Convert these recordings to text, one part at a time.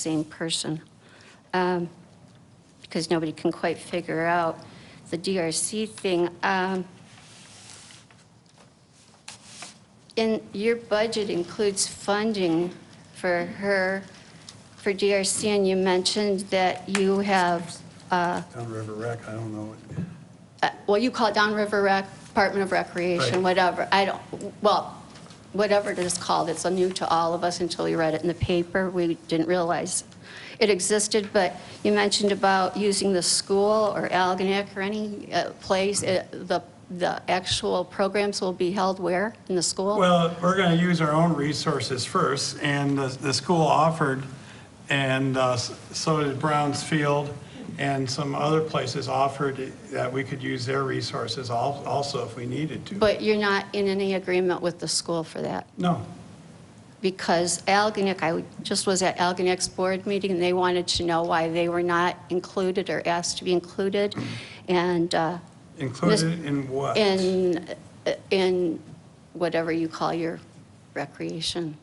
same person. Um, Because nobody can quite figure out the DRC thing. Um, In, your budget includes funding for her, for DRC, and you mentioned that you have, Downriver Rec, I don't know. uh, well, you call it downriver rec, Department of Recreation, Right. whatever. I don't, well, whatever it is called, it's new to all of us until we read it in the paper. We didn't realize it existed, but you mentioned about using the school or Algonac or any uh, place, uh, the, the actual programs will be held where? In the school? Well, we're going to use our own resources first, and the, the school offered, and uh, s- so did Browns Field, and some other places offered that we could use their resources al- also if we needed to. But you're not in any agreement with the school for that? No, because Algonac, I just was at Algonac's board meeting, and they wanted to know why they were not included or asked to be included, and uh, included in what? in, in whatever you call your recreation.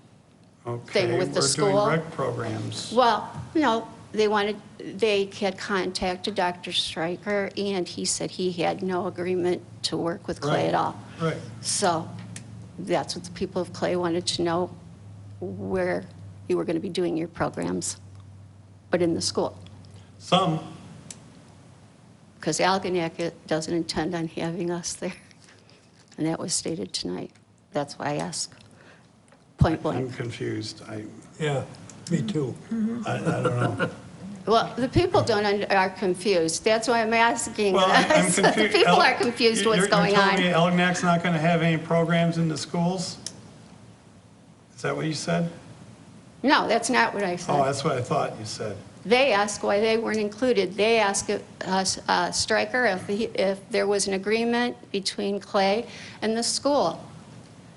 Okay, with the We're school? doing rec programs. Well, no, they wanted, they had contacted Dr. Stryker, and he said he had no agreement to work with Clay at all. Right, right. So that's what the people of Clay wanted to know, where you were going to be doing your programs, but in the school. Some, Because Algonac it doesn't intend on having us there. And that was stated tonight. That's why I ask, point I'm blank. confused. I, Yeah, me too. I I don't know. Well, the people don't, un- are confused. That's why I'm asking. Well, I'm I'm this. The confused. people El- are confused You're- what's going on. You're telling me uh, Elginak's not going to have any programs in the schools? Is that what you said? No, that's not what I said. Oh, that's what I thought you said. They asked why they weren't included. They asked us, uh, Stryker if, he- if there was an agreement between Clay and the school.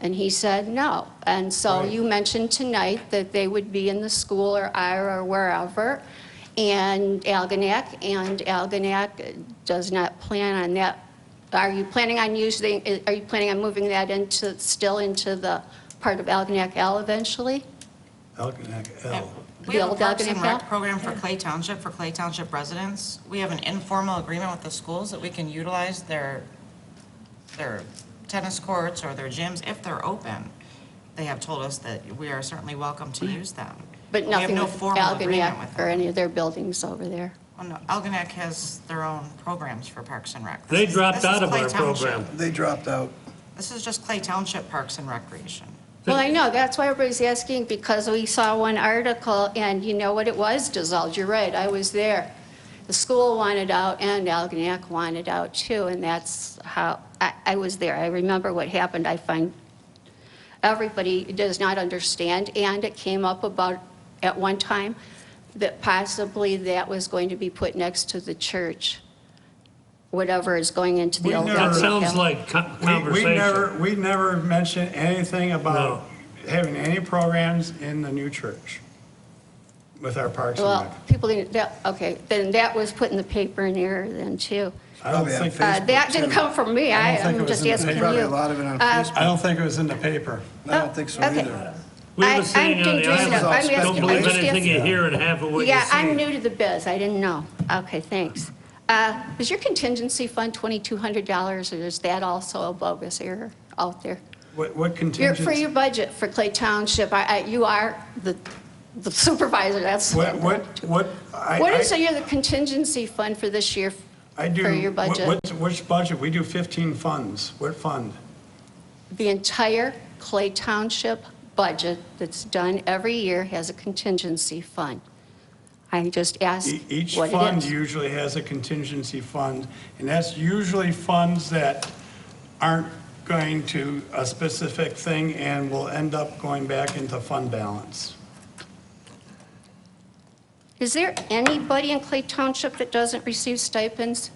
And he said no. And so Right. you mentioned tonight that they would be in the school or Ira or wherever, and Algonac, and Algonac does not plan on that. Are you planning on using, are you planning on moving that into, still into the part of Algonac L eventually? Elginak L. The We have a old Parks and Algonac Rec Hill? program for Clay Township, for Clay Township residents. We have an informal agreement with the schools that we can utilize their, their tennis courts or their gyms if they're open. They have told us that we are certainly welcome to use them. But We have nothing no with formal agreement Algonac with or them. any of their buildings over there. Well, no, Algonac has their own programs for Parks and Rec. They This is- dropped this is out of Clay our Township. program. They dropped out. This is just Clay Township Parks and Recreation. Well, I know, that's why everybody's asking, because we saw one article, and you know what, it was dissolved, you're right, I was there. The school wanted out, and Algonac wanted out too, and that's how, I, I was there, I remember what happened, I find everybody does not understand, and it came up about, at one time, that possibly that was going to be put next to the church, whatever is going into the We old never- That Algonac sounds Hill. like co- We- We never, conversation. we never mentioned anything about No. having any programs in the new church with our Parks and Well, Rec. people didn't, that, okay, then that was put in the paper in error then, too. I don't Oh, Probably on think, Uh, they- That didn't come from me, I I, don't think it I'm was just in the asking paper. Probably you. a lot of it Uh, on oh, Facebook. I don't think it was in the paper. I don't think so okay. either. We I- have a saying I'm on the confused now. I'm island, don't asking- believe I'm just anything you asking- hear and half of what you Yeah, I'm see. new to the biz, I didn't know. Okay, thanks. Uh, Is your contingency fund $2,200, or is that also a bogus error out there? What what Your- For contingency? your budget for Clay Township, I- I- you are the the supervisor, that's. What, what, what? I- What I- is your the contingency fund for this year? I do. For your wh- budget? what's- Which budget? We do 15 funds. What fund? The entire Clay Township budget that's done every year has a contingency fund. I just asked E- Each what fund it is. usually has a contingency fund, and that's usually funds that aren't going to a specific thing and will end up going back into fund balance. Is there anybody in Clay Township that doesn't receive stipends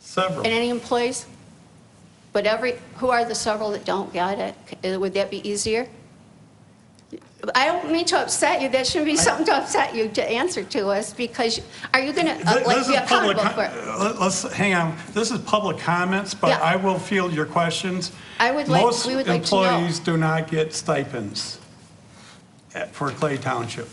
Several. and any employees? But every, who are the several that don't get it? Uh, Would that be easier? I don't mean to upset you, that shouldn't be something to upset you to answer to us, because are you going to, Th- uh, like, this be is public accountable for com- it? uh, let- Let's, hang on, this is public comments, but Yeah. I will field your questions. I would like- we would like to know. Most employees do not get stipends at- for Clay Township.